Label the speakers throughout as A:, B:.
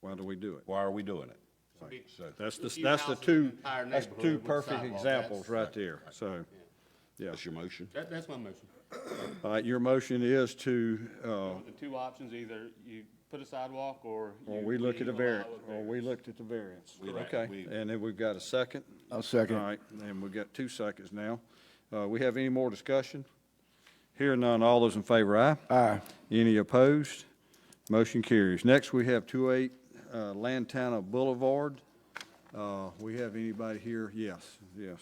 A: Why do we do it?
B: Why are we doing it? So,
A: That's the,
C: Few
A: that's the
C: houses in
A: two,
C: the entire
A: that's the two
C: neighborhood with
A: perfect
C: sidewalk,
A: examples
C: that's-
A: right there, so, yeah.
B: that's your motion?
C: That, that's my motion.
A: All right, your motion is to, uh,
C: The two options, either you put a sidewalk or.
A: or
C: you
A: we look at a
C: leave, allow
A: variant,
C: it
A: or
C: there.
A: we looked at the variance.
B: Correct.
A: Okay,
B: We-
A: and then we've got a second?
D: I'll second.
A: All right, and we've got two seconds now. Uh, we have any more discussion? Here none, all those in favor, aye?
D: Aye.
A: Any opposed? Motion carries. Next, we have 28 uh, Lantana Boulevard. Uh, We have anybody here? Yes, yes.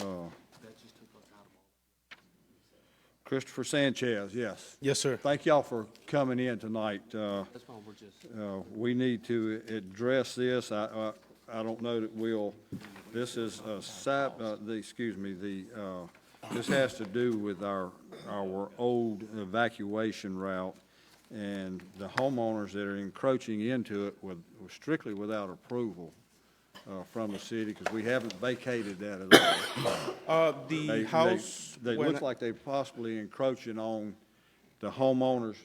A: Uh, Christopher Sanchez, yes.
E: Yes, sir.
A: Thank y'all for coming in tonight. Uh, uh, We need to address this. I, I I don't know that we'll, this is a side, uh, the, excuse me, the, uh, this has to do with our, our old evacuation route and the homeowners that are encroaching into it with, strictly without approval uh, from the city, because we haven't vacated that at all.
E: Uh,
A: They-
E: the
A: they-
E: house.
A: They
E: when-
A: look like they possibly encroaching on the homeowners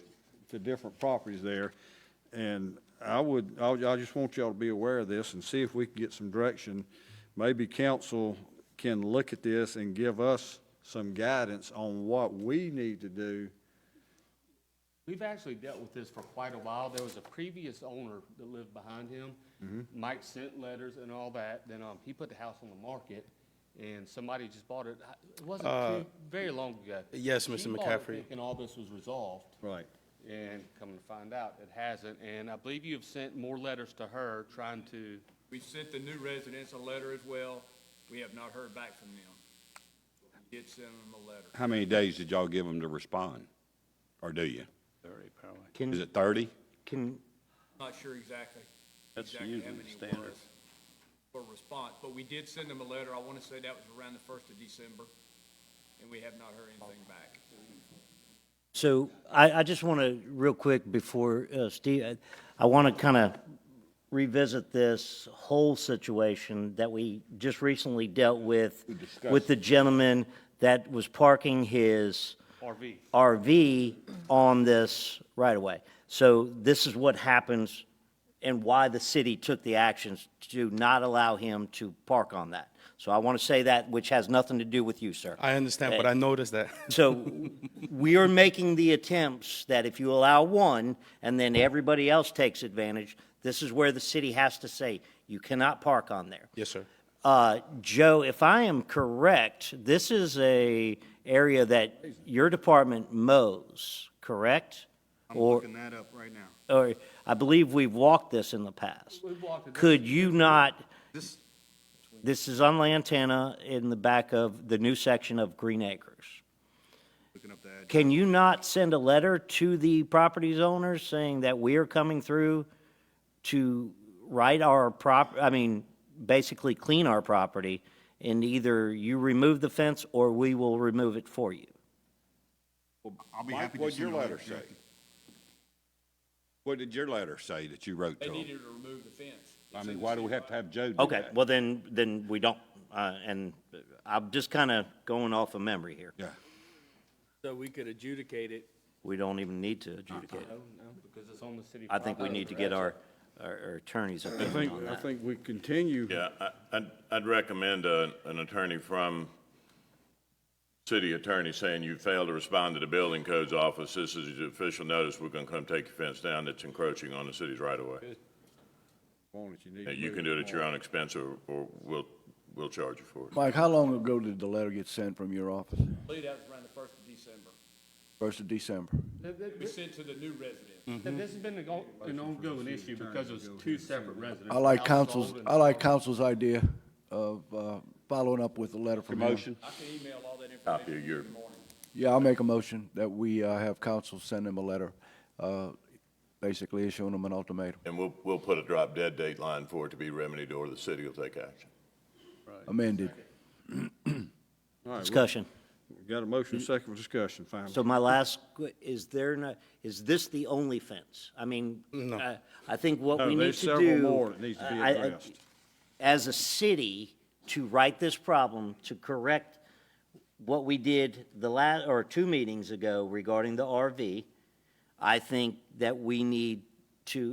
A: to different properties there. And I would, I, would- I just want y'all to be aware of this and see if we can get some direction. Maybe council can look at this and give us some guidance on what we need to do.
C: We've actually dealt with this for quite a while. There was a previous owner that lived behind him.
A: Mm-hmm.
C: Mike sent letters and all that, then, um, he put the house on the market, and somebody just bought it. I- It wasn't too, very long ago.
E: Uh, yes, Mr.
C: He bought it
E: McCaffrey.
C: Thinking all this was resolved.
A: Right.
C: And come to find out, it hasn't, and I believe you have sent more letters to her trying to,
F: We sent the new residents a letter as well. We have not heard back from them. Did send them a letter.
B: How many days did y'all give them to respond? Or do you? Is
G: Can,
B: it thirty?
G: can,
F: Not sure exactly. exactly how many it was For response, but we did send them a letter. I want to say that was around the first of December, and we have not heard anything back.
G: so I, I just want to, real quick, before uh, Steve, I- I want to kind of revisit this whole situation that we just recently dealt with, with the gentleman that was parking his
C: RV.
G: RV on this right-of-way. So this is what happens and why the city took the actions to not allow him to park on that. So I want to say that, which has nothing to do with you, sir.
E: I understand, but I noticed that.
G: So we are making the attempts that if you allow one and then everybody else takes advantage, this is where the city has to say, you cannot park on there.
E: Yes, sir.
G: Uh, Joe, if I am correct, this is a area that your department mows, correct? Or,
F: that up right now.
G: or I believe we've walked this in the past.
C: We've walked it.
G: Could you not, this is on Lantana in the back of the new section of Green Acres. Can you not send a letter to the properties owners saying that we are coming through to right our prop, I mean, basically clean our property? And either you remove the fence or we will remove it for you.
B: I'll be happy to What'd your letter say? What did your letter say that you wrote to
F: They
B: them?
F: needed to remove the fence.
B: I mean, why do we have to have Joe do that?
G: Okay, well then, then we don't, uh, and I'm just kind of going off of memory here.
B: Yeah.
H: So we could adjudicate it
G: We don't even need to adjudicate it.
C: No, no, because it's on the city.
G: I think we
C: property.
G: need to get our, our our attorney's
A: I
G: opinion
A: think,
G: on
A: I
G: that.
A: think we continue.
I: Yeah, I- I'd, I'd recommend a- an attorney from city attorney saying you failed to respond to the building codes office. This is your official notice. We're going to come take your fence down. It's encroaching on the city's right of way.
A: Want it, need
I: Now,
A: to
I: You
A: move
I: can do it at
A: on.
I: your own expense or, or we'll, we'll charge you for it.
D: Mike, how long ago did the letter get sent from your office?
F: I believe that was around the first of December.
D: First of December.
C: Th- th-
F: We sent to the new residents.
I: Mm.
C: th- This has been an go- an ongoing issue because it was two separate residents.
D: I like
C: House
D: council's,
C: sold and-
D: I like council's idea of, uh, following up with the letter from him.
B: Motion?
F: I can email all that information.
I: Copy of your,
D: Yeah, I'll make a motion that we, uh, have council send him a letter, uh, basically issuing him an ultimatum.
I: and we'll, we'll put a drop dead date line for it to be remedied or the city will take action.
D: Amended.
A: All right,
G: Discussion.
A: we Got a motion, second for discussion, finally.
G: So my last, que- is there not, is this the only fence? I mean, I- I think what
A: No,
G: we need
A: there's
G: to do.
A: several more that needs to be
G: I- I-
A: addressed.
G: As a city, to right this problem, to correct what we did the last, or two meetings ago regarding the RV, I think that we need to